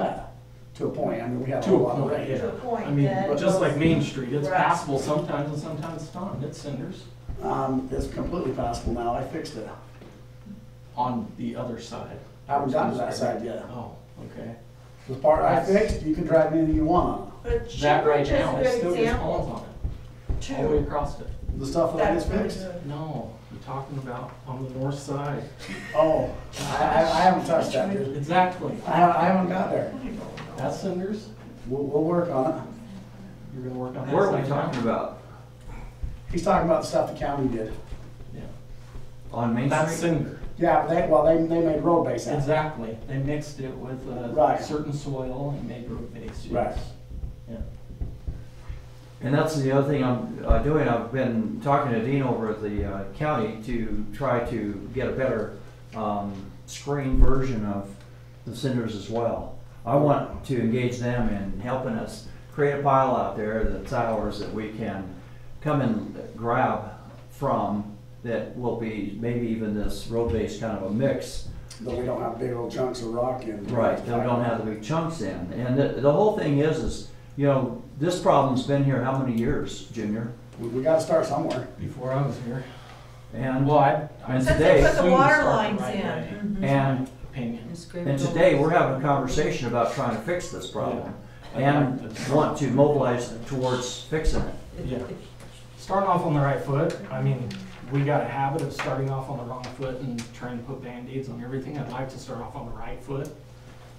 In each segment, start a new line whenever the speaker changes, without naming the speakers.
to a point, I mean, we have a
To a
lot of
point,
rain.
yeah.
To a point
I mean,
that-
just like Main Street, it's
Right.
passable sometimes and sometimes it's not. It's cinders
Um, it's completely passable now, I fixed it.
on the other side.
I haven't gotten to that side yet.
Oh, okay.
The part I fixed, you can drive anything you want on
But
That right
Shepherd is
now,
a
it
good
still gets
example
holes on it, all the way
too.
across it.
it. The stuff that I
That's
just
really
fixed?
good.
No, I'm talking about on the north side.
Oh, I, I, I haven't touched that, dude.
Exactly.
I haven't, I haven't got there.
That's cinders.
We'll, we'll work on it.
You're gonna work on that.
What are we
side now?
talking about?
He's talking about the stuff the county did.
Yeah.
On Main
That's
Street?
cinder.
Yeah, but they, well, they, they made road base out of it.
Exactly. They mixed it with a
Right.
certain soil and made root base.
Right.
yes. Yeah.
And that's the other thing I'm uh, doing. I've been talking to Dean over at the uh, county to try to get a better um, screen version of the cinders as well. I want to engage them in helping us create a pile out there that's ours that we can come and grab from that will be maybe even this road-based kind of a mix
Though we don't have big old chunks of rock in.
Right, that we don't have the big chunks in. And the, the whole thing is, is, you know, this problem's been here how many years, Junior?
We, we gotta start somewhere.
Before I was here.
And,
Well, I. I
And
Since they
today-
put
assumed it
the water
started
lines
right away.
in.
and,
Opinion.
and today, we're having a conversation about trying to fix this problem. And want to mobilize towards fixing it.
Yeah. Starting off on the right foot, I mean, we got a habit of starting off on the wrong foot and trying to put Band-Aids on everything. I'd like to start off on the right foot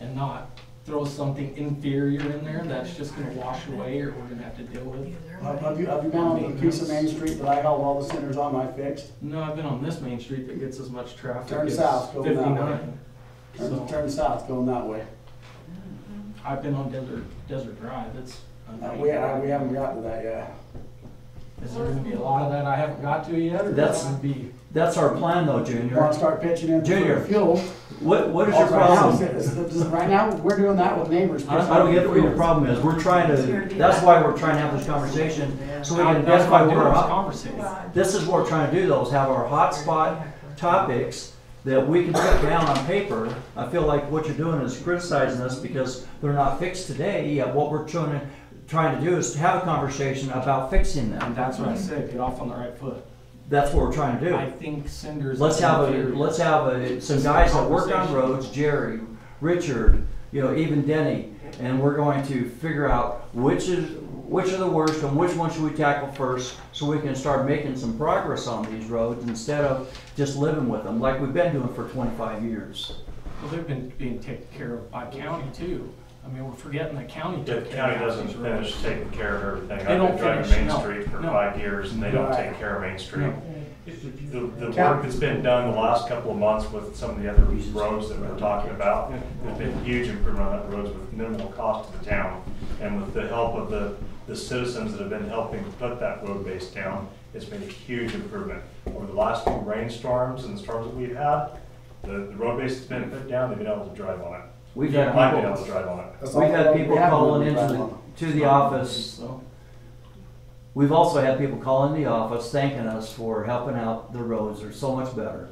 and not throw something inferior in there that's just gonna wash away or we're gonna have to deal with.
Have have you, have you been on the piece of Main Street that I held all the centers on, I fixed?
No, I've been on this main street that gets as much traffic.
Turn
as
south, go that way.
Fifty-nine.
Turn,
So,
turn south, going that way.
I've been on Desert, Desert Drive, it's.
Uh, We, I- we haven't gotten to that yet.
Is there gonna be a lot of that I haven't got to yet, or
That's-
that's gonna be?
That's our plan though,
You wanna
Junior.
start pitching in
Junior.
for fuel?
What, what is your
Also, right now,
problem?
it's- it's- it's- Right now, we're doing that with neighbors.
I I don't get what your problem is. We're trying to, that's why we're trying to have this conversation, so we can identify where our,
Conversation.
mm-hmm.
This is what we're trying to do though, is have our hotspot topics that we can put down on paper. I feel like what you're doing is criticizing us because they're not fixed today, yet what we're trying to, trying to do is to have a conversation about fixing
And
them.
that's what I said, get off on the right foot.
That's what we're trying to
I
do.
think Cinder's.
Let's have a, let's have a, some guys that work on
Conversation.
roads, Jerry, Richard, you know, even Denny, and we're going to figure out which is, which are the worst and which one should we tackle first, so we can start making some progress on these roads instead of just living with them, like we've been doing for twenty-five years.
Well, they've been being taken care of by county too. I mean, we're forgetting the county
The
took care
county
of
doesn't
these roads.
finish taking care of everything.
They
I've
don't
been driving
finish,
Main
no,
Street for
no.
five years and they don't
Right.
take care of Main Street. The, the
Cap-
work that's been done the last couple of months with some of the other roads that we're talking about, there's been huge improvement on that roads with minimal cost to the town. And with the help of the, the citizens that have been helping put that road base down, it's been a huge improvement. Over the last few rainstorms and the storms that we've had, the, the road base that's been put down, they've been able to drive on it.
We've had
I've been able to
people,
drive on it.
we've had people calling into the, to the office
So,
We've also had people call in the office thanking us for helping out. The roads are so much better.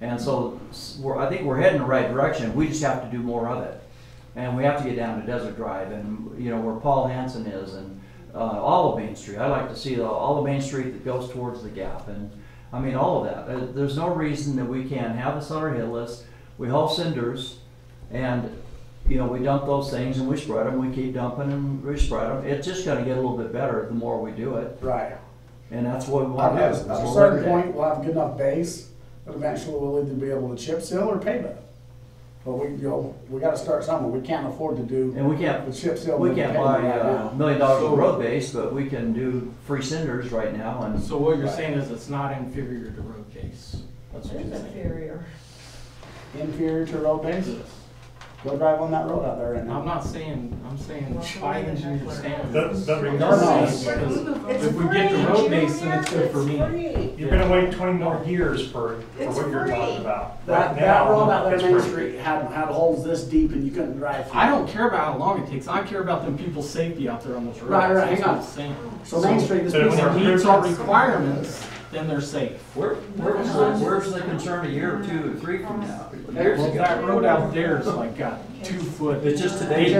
And so s- we're, I think we're heading the right direction. We just have to do more of it. And we have to get down to Desert Drive and, you know, where Paul Hansen is and, uh, all of Main Street. I like to see the- all of Main Street that goes towards the gap and, I mean, all of that. Uh, There's no reason that we can't have this on our hit list. We haul cinders and, you know, we dump those things and we spread them. We keep dumping and we spread them. It's just gonna get a little bit better the more we do it.
Right.
And that's what we
At
want to do. is
a
we'll
certain
look at-
point, we'll have a good enough base, that eventually we'll either be able to chip seal or pave it. But we, you know, we gotta start somewhere, we can't afford to do
And we can't,
the chip seal.
we
and
can't
pavement
buy
right
uh, a
now.
million dollars
So-
of road base, but we can do free cinders right now and,
so what you're saying is it's not inferior to road base. That's what
It's
you're saying.
inferior.
Inferior to road base, go drive on that road out there right
I'm
now.
not saying, I'm saying
Well,
by
the
engineer
heckler.
standards.
But- but
I'm
regardless-
saying because
It's
If we get the
free,
road base,
Junior,
then it's good for me.
free.
You're gonna wait twenty more years for, for
It's
what you're
free.
talking about.
That,
Right
that
now,
road out
it's
there, Main
free.
Street, had, had holes this deep and you couldn't drive through.
I don't care about how long it takes. I care about them people's safety out there on those roads.
Right, right,
That's
hang on.
what I'm saying.
So Main Street, this
So
piece
when
of
they're-
If it meets our requirements, then they're safe.
where, where was the, where's the concern a year or two or three from now? Years
Well,
ago.
that road out there is like got two foot.
It's just today.
They